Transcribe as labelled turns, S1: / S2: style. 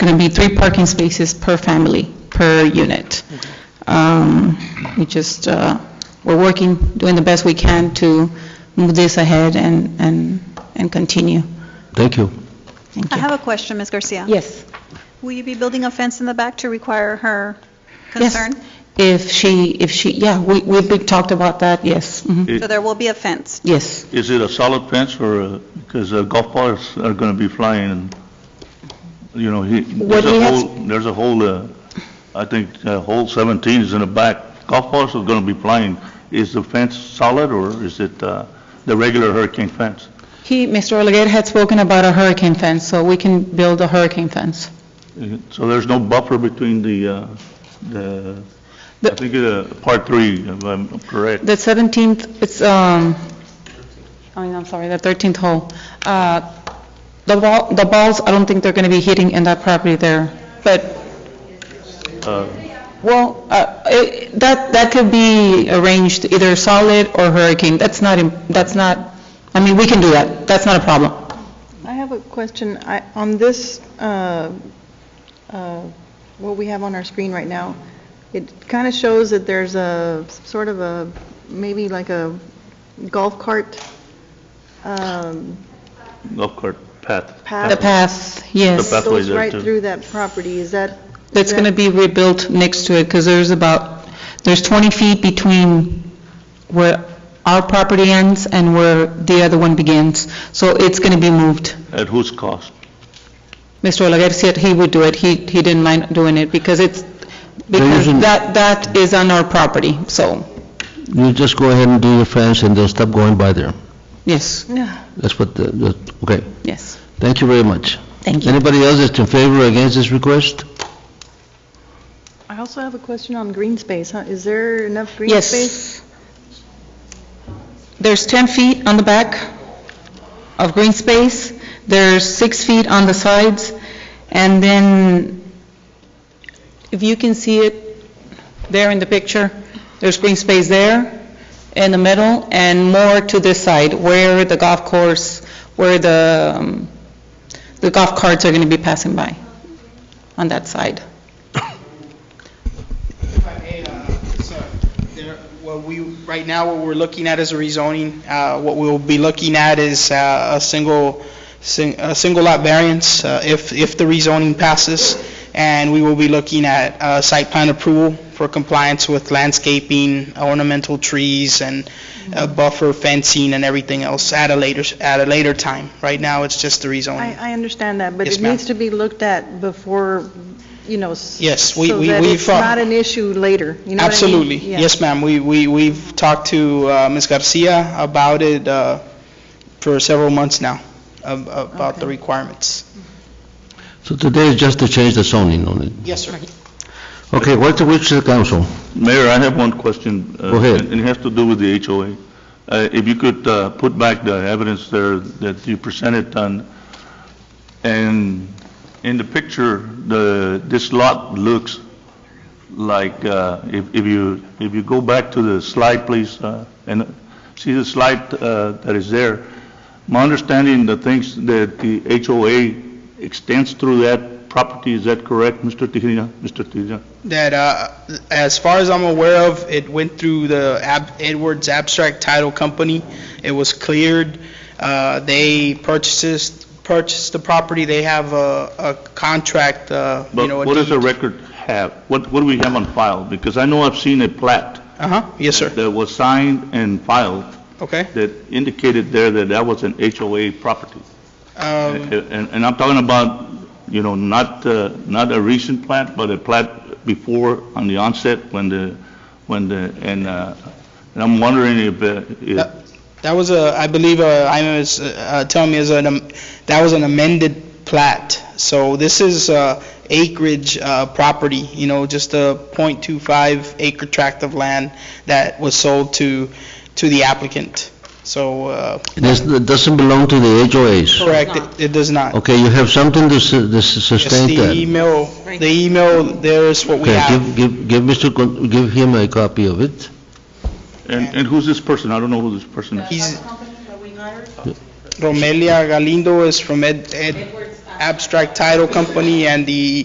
S1: going to be three parking spaces per family, per unit. Um, We just, uh, we're working, doing the best we can to move this ahead and, and, and continue.
S2: Thank you.
S1: Thank
S3: I
S1: you.
S3: have a question, Ms. Garcia.
S1: Yes.
S3: Will you be building a fence in the back to require her
S1: Yes.
S3: concern?
S1: If she, if she, yeah, we, we've talked about that, yes. mhm.
S3: So there will be a fence.
S1: Yes.
S4: Is it a solid fence or, a- because uh, golf balls are going to be flying and, you know, he,
S1: What
S4: there's
S1: he
S4: a
S1: has-
S4: whole, there's a whole, uh, I think, uh, hole 17 is in the back. Golf balls are going to be flying. Is the fence solid or is it uh, the regular hurricane fence?
S1: He, Mr. Oleguer had spoken about a hurricane fence, so we can build a hurricane fence.
S4: Uh, So there's no buffer between the, uh, the, I
S1: The-
S4: think, uh, part three, if I'm correct.
S1: The 17th, it's, um, I mean, I'm sorry, the 13th hole. Uh, The ball, the balls, I don't think they're going to be hitting in that property there, but,
S4: Uh,
S1: well, uh, it- that, that could be arranged either solid or hurricane. That's not, im- that's not, I mean, we can do that. That's not a problem.
S5: I have a question. I- On this, uh, uh, what we have on our screen right now, it kind of shows that there's a, sort of a, maybe like a golf cart um,
S4: Golf cart path.
S1: The
S5: path.
S1: path, yes.
S4: The path. Pathway
S5: Goes
S4: there,
S5: right
S4: too.
S5: through that property. Is that?
S1: That's going to be rebuilt next to it, because there's about, there's 20 feet between where our property ends and where the other one begins. So it's going to be moved.
S4: At whose cost?
S1: Mr. Olaguer said he would do it. He, he didn't mind doing it, because it's, because
S2: isn't-
S1: that, that is on our property, so,
S2: You just go ahead and do your fence, and they'll stop going by there.
S1: yes,
S2: That's what, the- the- okay.
S1: yes.
S2: Thank you very much.
S1: Thank you.
S2: Anybody else that's in favor or against this request?
S5: I also have a question on green space. huh? Is there enough green space?
S1: Yes. There's 10 feet on the back of green space, there's six feet on the sides, and then, if you can see it there in the picture, there's green space there in the middle, and more to this side, where the golf course, where the, um, the golf carts are going to be passing by, on that side.
S6: If I may, uh, sir, there- What we, right now, what we're looking at is a rezoning. Uh, What we'll be looking at is uh, a single, sing- a single lot variance uh, if, if the rezoning passes, and we will be looking at uh, site plan approval for compliance with landscaping, ornamental trees, and uh, buffer fencing and everything else at a later, at a later time. Right now, it's just the rezoning.
S5: I, I understand that, but
S6: Yes,
S5: it
S6: ma'am.
S5: needs to be looked at before, you know. s-
S6: Yes, we- we-
S5: So that
S6: we
S5: it's
S6: thought-
S5: not an issue later, you know what I mean?
S6: Absolutely.
S5: Yeah.
S6: Yes, ma'am. We, we, we've talked to uh, Ms. Garcia about it uh, for several months now, ab- about the requirements.
S2: So today is just to change the zoning on it.
S6: Yes, sir.
S2: Okay, what's the wish of the council?
S4: Mayor, I have one question. uh,
S2: Go ahead.
S4: And it has to do with the HOA. Uh, If you could uh, put back the evidence there that you presented on, and in the picture, the, this lot looks like, uh, if if you, if you go back to the slide, please, uh, and see the slide uh, that is there, my understanding, the things that the HOA extends through that property, is that correct, Mr. Tejeda? Mr. Tejeda?
S6: That, uh, as far as I'm aware of, it went through the Ab- Edwards Abstract Title Company. It was cleared. Uh, They purchases, purchased the property. They have a a contract, uh, you know.
S4: But
S6: a
S4: what does the
S6: deed.
S4: record have? What, what do we have on file? Because I know I've seen a plat
S6: Uh-huh, yes, sir.
S4: that was signed and filed
S6: Okay.
S4: that indicated there that that was an HOA property.
S6: Um,
S4: And, and I'm talking about, you know, not, uh, not a recent plat, but a plat before, on the onset, when the, when the, and, uh, and I'm wondering if, uh,
S6: That
S4: if,
S6: that was a, I believe, uh, I was uh, telling me is an, am- that was an amended plat. So this is uh, acreage uh, property, you know, just a .25 acre tract of land that was sold to, to the applicant. So, uh,
S2: This it doesn't belong to the HOAs.
S6: correct, it- it does not.
S2: Okay, you have something to su- to
S6: Just
S2: sustain
S6: the
S2: that.
S6: email, the email, there's what we
S2: Okay,
S6: have.
S2: give, give, give Mr., Con- give him a copy of it.
S4: and and who's this person? I don't know who this person is.
S6: He's, Romelia Galindo is from Ed, Ed Abstract Title Company and the